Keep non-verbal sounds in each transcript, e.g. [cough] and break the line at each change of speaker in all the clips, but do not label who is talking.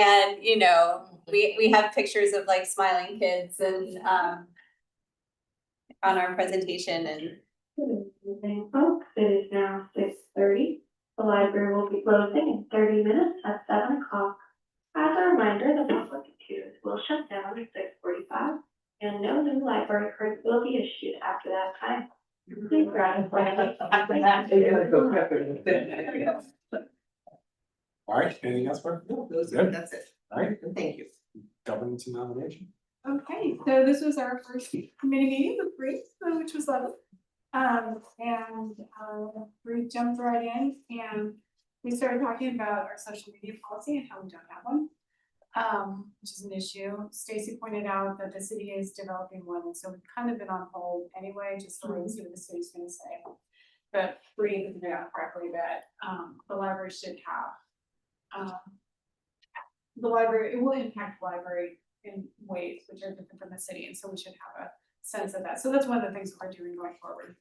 And, you know, we, we have pictures of like smiling kids and, um, on our presentation and,
Evening, folks, it is now six thirty. The library will be closing in thirty minutes at seven o'clock. As a reminder, the public computers will shut down at six forty-five, and no new library cards will be issued after that time.
Oh,
Please ratify.
After that, they're gonna go pepper.
All right, anything else, Mark?
No, those
Good.
are, that's it.
All right,
Thank you.
governance and nomination.
Okay, so this was our first committee meeting with Bree, uh, which was lovely. Um, and, uh, Bree jumped right in and we started talking about our social media policy and how we don't have one. Um, which is an issue. Stacy pointed out that the city is developing one, and so we've kind of been on hold anyway, just to wait see what the city's gonna say. But Bree pointed out correctly that, um, the library should have, um, the library, it will impact library in ways which are different from the city, and so we should have a sense of that, so that's one of the things that we're doing going forward.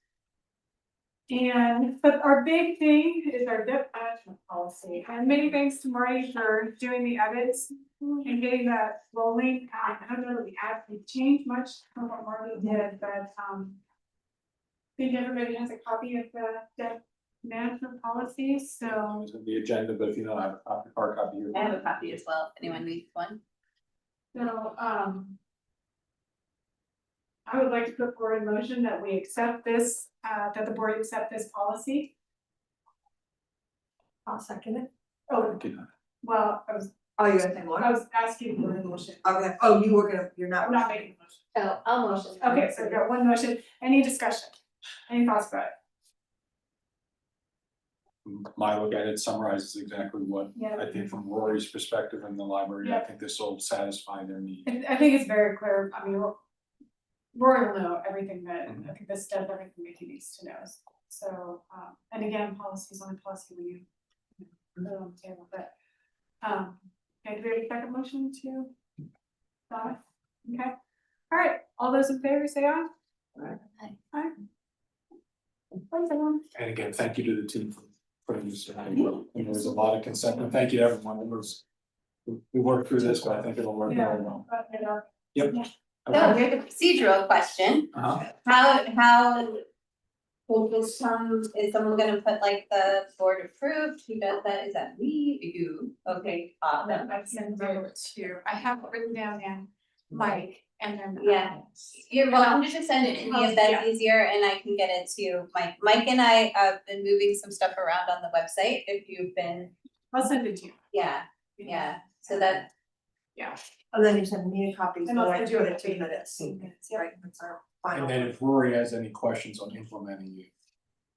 And, but our big thing is our debt management policy, and many thanks to Marty for doing the edits and getting that rolling, um, I don't know that we actually changed much from what Marty did, but, um. I think everybody has a copy of the debt management policy, so.
It's in The agenda, but if you don't have a copy, hard copy, you're.
I have a copy as well, if anyone needs one.
So, um. I would like to put forward a motion that we accept this, uh, that the board accept this policy.
I'll second it.
Oh,
Did not.
well, I was,
Oh, you're saying
I was asking for a motion.
Okay, oh, you were gonna, you're not.
I'm not making a
Oh, I'll motion.
motion. Okay, so we got one motion. Any discussion? Any thoughts about it?
My look at it summarizes exactly what
Yeah.
I think from Rory's perspective in the library, I
Yeah.
think this will satisfy their need.
I, I think it's very clear. I mean, Ro- Rory will know everything that, I think this does everything that he needs to know. So, um, and again, policy is only policy when you you know, put it on the table, but, um, okay, do we have a second motion to? Donna? Okay, all right, all those in favor say aye.
Aye.
Aye.
Aye. Thanks, everyone.
And again, thank you to the team for putting this in. And there's a lot of consent, and thank you to everyone. It was- we- We worked through this, but I think it'll work very well.
But, you know,
Yep.
So
Okay.
here's a procedural question,
Uh-huh.
how, how will this come, is someone gonna put like the board approved, who does that, is that me, you, okay, awesome.
I've sent over to, I have it written down and Mike and then. um,
Yeah. You're welcome to just send it to me if that's
Yeah.
easier and I can get it to Mike. Mike and I have been moving some stuff around on the website if you've been,
I'll send it to you.
yeah, yeah, so that,
And Oh, then you send me a copy,
And
so
I'll
I
send you
put
a
it to
copy.
you, that's,
Yeah.
right, that's our final.
And then if Rory has any questions on implementing it,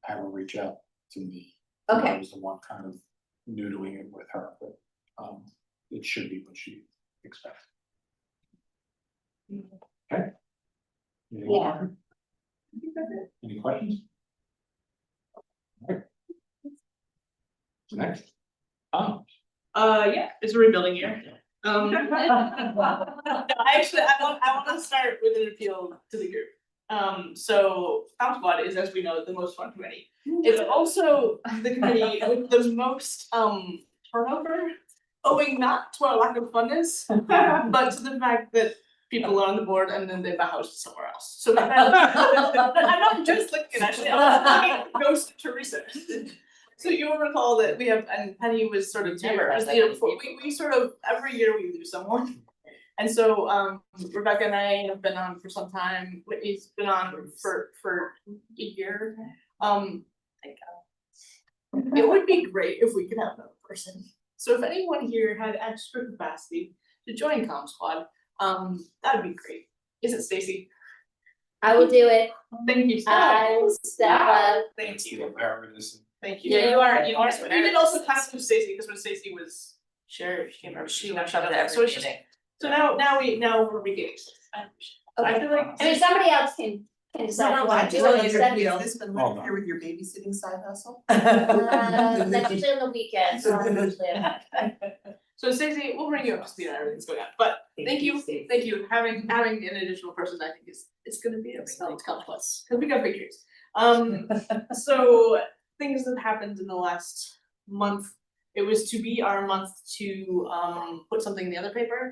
I will reach out to me. I [laughs]
okay,
was the one kind of noodling it with her, but um it should be what she expects. Okay. Anything
Yeah.
further? Any questions? Alright. Next. Oh,
Uh, yeah, it's a rebuilding year. Um, [laughs] no, I actually, I want, I want to start with an appeal to the group. Um, so Fountain Squad is, as we know, the most fun committee. It's
[laughs]
also the committee with the most, um, turnover, owing not to our lack of
[laughs]
funness, but to the fact that people are on the board and then they buy houses somewhere else.
[laughs]
So that, I'm not just looking, actually, I'm looking at Ghost Teresa. So you'll recall that we have, and Penny was sort of
Never
here,
had
was
that
the year
many
before. we, we sort of, every year we lose someone. And so, um, Rebecca and I have been on for some time, Whitney's been on for, for a year, um. thank God. It would be great if we could have another person, so if anyone here had extra capacity to join Com Squad, um, that'd be great. Is it Stacy?
I will do it.
Thank you. so
I
much. Ah,
will step up.
Thank
that's the
you,
embarrassment.
thank you. Yeah, you are, you are. We did also pass to Stacy, because when Stacy was chair, she came over, she got shut down, so it's just. So now, now we, now we're beginning. I I feel like.
I mean, somebody else can, can decide. if they
I
want to do
just
it
like your
instead.
appeal. This been
Hold on.
here with your babysitting side [laughs] hustle?
Uh, That's usually on the weekend, so I'm usually.
So Stacey, we'll bring you up to speed on everything's going on, but thank you, thank you, having, having an additional person, I think is, is gonna be a spelled complex, cause we got pictures. [laughs] Um, so, things that happened in the last month, It was to be our month to um put something in the other paper